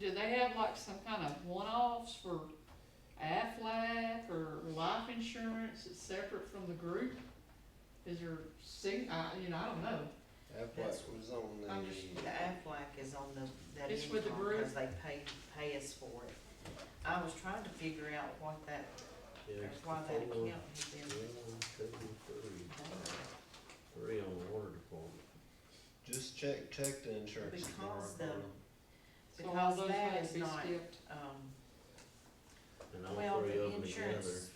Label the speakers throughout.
Speaker 1: do they have like some kind of one-offs for Aflac or life insurance that's separate from the group? Is there, sig- I, you know, I don't know.
Speaker 2: That's-
Speaker 3: Aflac was on the.
Speaker 2: I'm just, the Aflac is on the, that
Speaker 1: It's for the
Speaker 2: income,
Speaker 1: group.
Speaker 2: cause they pay, pay us for it. I was trying to figure out what that,
Speaker 4: Yeah,
Speaker 2: why that
Speaker 4: four,
Speaker 2: account is in.
Speaker 4: one, two, three, three on the water department.
Speaker 3: Just check, check the insurance. tomorrow,
Speaker 2: Because the-
Speaker 3: Carla.
Speaker 1: So all
Speaker 2: Because
Speaker 1: those
Speaker 2: that
Speaker 1: may
Speaker 2: is
Speaker 1: be
Speaker 2: not-
Speaker 1: skipped.
Speaker 2: Um,
Speaker 4: And all
Speaker 2: well,
Speaker 4: three
Speaker 2: the
Speaker 4: of them together.
Speaker 2: insurance,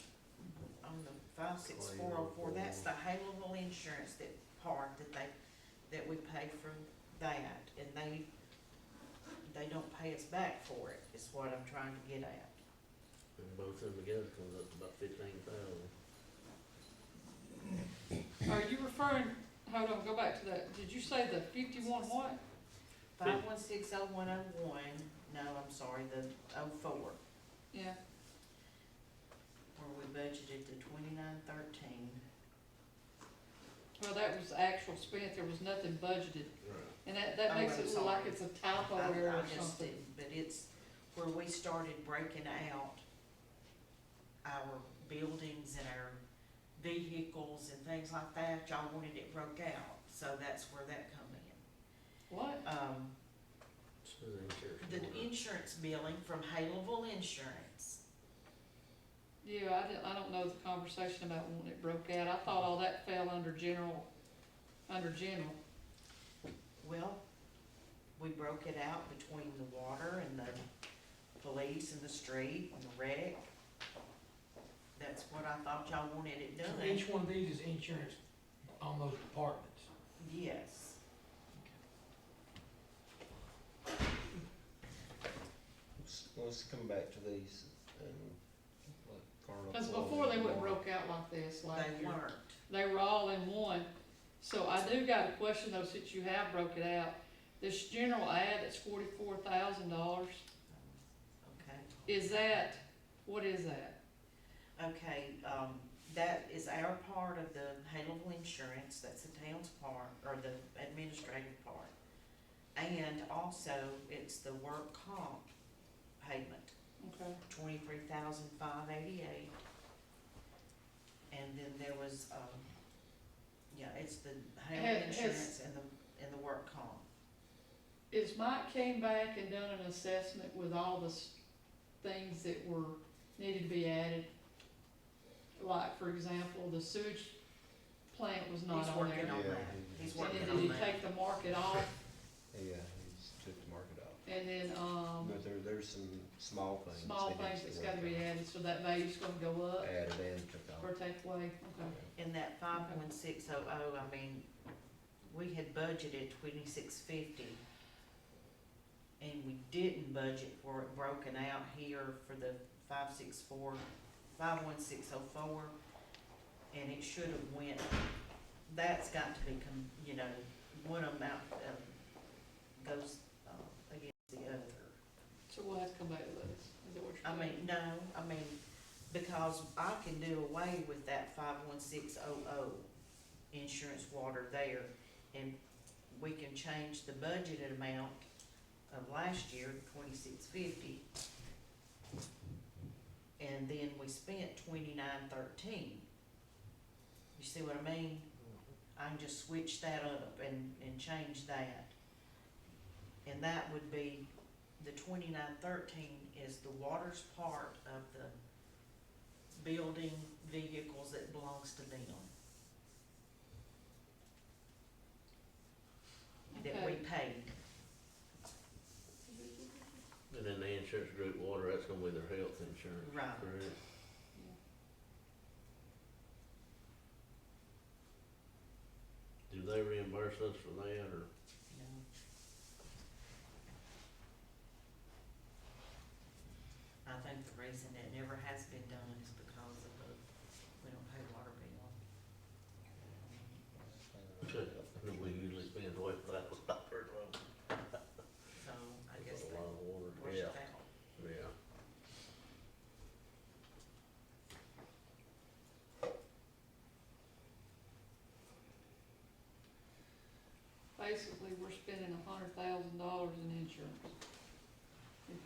Speaker 2: on the five six four oh four, that's the Haleville insurance that part that they, that we pay for that, and they, they don't pay us back for it, is what I'm trying to get at.
Speaker 4: And both of them together comes up to about fifteen thousand.
Speaker 1: Are you referring, hold on, go back to that. Did you say the fifty-one what?
Speaker 2: Five one six oh one oh one, no, I'm sorry, the oh four,
Speaker 1: Yeah,
Speaker 2: where we budgeted the twenty-nine thirteen.
Speaker 1: well, that was actual spent. There was nothing budgeted.
Speaker 4: Right.
Speaker 1: And that, that
Speaker 2: Oh,
Speaker 1: makes
Speaker 2: I'm
Speaker 1: it look like
Speaker 2: sorry.
Speaker 1: it's a typo
Speaker 2: I,
Speaker 1: error
Speaker 2: I
Speaker 1: or
Speaker 2: just
Speaker 1: something.
Speaker 2: didn't, but it's where we started breaking out our buildings and our vehicles and things like that, y'all wanted it broke out, so that's where that come in.
Speaker 1: What?
Speaker 2: Um,
Speaker 4: So the insurance.
Speaker 2: the
Speaker 4: board.
Speaker 2: insurance billing from Haleville Insurance,
Speaker 1: Yeah, I didn't, I don't know the conversation about when it broke out. I thought all that fell under general, under general.
Speaker 2: well, we broke it out between the water and the police and the street and the wreck. That's what I thought y'all wanted it
Speaker 5: So
Speaker 2: done,
Speaker 5: each one of these is insurance on those departments.
Speaker 2: yes.
Speaker 3: Let's, let's come back to these and let Carla.
Speaker 1: Cause
Speaker 3: follow
Speaker 1: before they
Speaker 3: along.
Speaker 1: wouldn't broke out like this last
Speaker 2: They
Speaker 1: year.
Speaker 2: weren't.
Speaker 1: They were all in one. So I do got a question though, since you have broke it out. This general ad that's forty-four thousand dollars,
Speaker 2: Okay,
Speaker 1: is that, what is that?
Speaker 2: okay, um, that is our part of the Haleville Insurance, that's the town's part, or the administrative part. And also, it's the work comp payment,
Speaker 1: Okay.
Speaker 2: twenty-three thousand five eighty-eight. And then there was, um, yeah, it's the
Speaker 1: Has-
Speaker 2: Haleville
Speaker 1: has-
Speaker 2: Insurance and the, and the work comp.
Speaker 1: Is Mike came back and done an assessment with all the s- things that were, needed to be added? Like, for example, the sewage plant was not
Speaker 2: He's
Speaker 1: on
Speaker 2: working
Speaker 1: there.
Speaker 2: on
Speaker 3: Yeah,
Speaker 2: that,
Speaker 3: he-
Speaker 2: he's
Speaker 1: And
Speaker 2: working
Speaker 1: then
Speaker 2: on
Speaker 1: did he
Speaker 2: that.
Speaker 1: take the market off?
Speaker 3: Yeah, he just took the market off.
Speaker 1: And then, um,
Speaker 3: But there, there's some small things.
Speaker 1: small
Speaker 3: that
Speaker 1: things
Speaker 3: needs
Speaker 1: that's
Speaker 3: to
Speaker 1: gotta
Speaker 3: work
Speaker 1: be
Speaker 3: on.
Speaker 1: added, so that value's gonna go up
Speaker 3: Added and took off.
Speaker 1: or take away, okay.
Speaker 2: In that five one six oh oh, I mean, we had budgeted twenty-six fifty. And we didn't budget for it broken out here for the five six four, five one six oh four. And it should have went, that's got to be, com- you know, one amount, um, goes, uh, against the other.
Speaker 1: So we'll have to come back to this, is that what
Speaker 2: I
Speaker 1: you're saying?
Speaker 2: mean, no, I mean, because I can do away with that five one six oh oh insurance water there. And we can change the budgeted amount of last year, twenty-six fifty. And then we spent twenty-nine thirteen. You see what I mean? I can just switch that up and, and change that. And that would be, the twenty-nine thirteen is the water's part of the building vehicles that belongs to them. That we
Speaker 1: Okay.
Speaker 2: paid,
Speaker 4: And then the insurance group water, that's gonna be their health insurance,
Speaker 2: right,
Speaker 4: correct? Do they reimburse us for that or?
Speaker 2: no. I think the reason that never has been done is because of the, we don't pay water bill.
Speaker 4: I know We usually spend way without a lot per month.
Speaker 2: So I guess
Speaker 4: That's
Speaker 2: they
Speaker 4: a lot of water,
Speaker 2: worked
Speaker 4: yeah,
Speaker 2: it out.
Speaker 4: yeah.
Speaker 1: Basically, we're spending a hundred thousand dollars in insurance.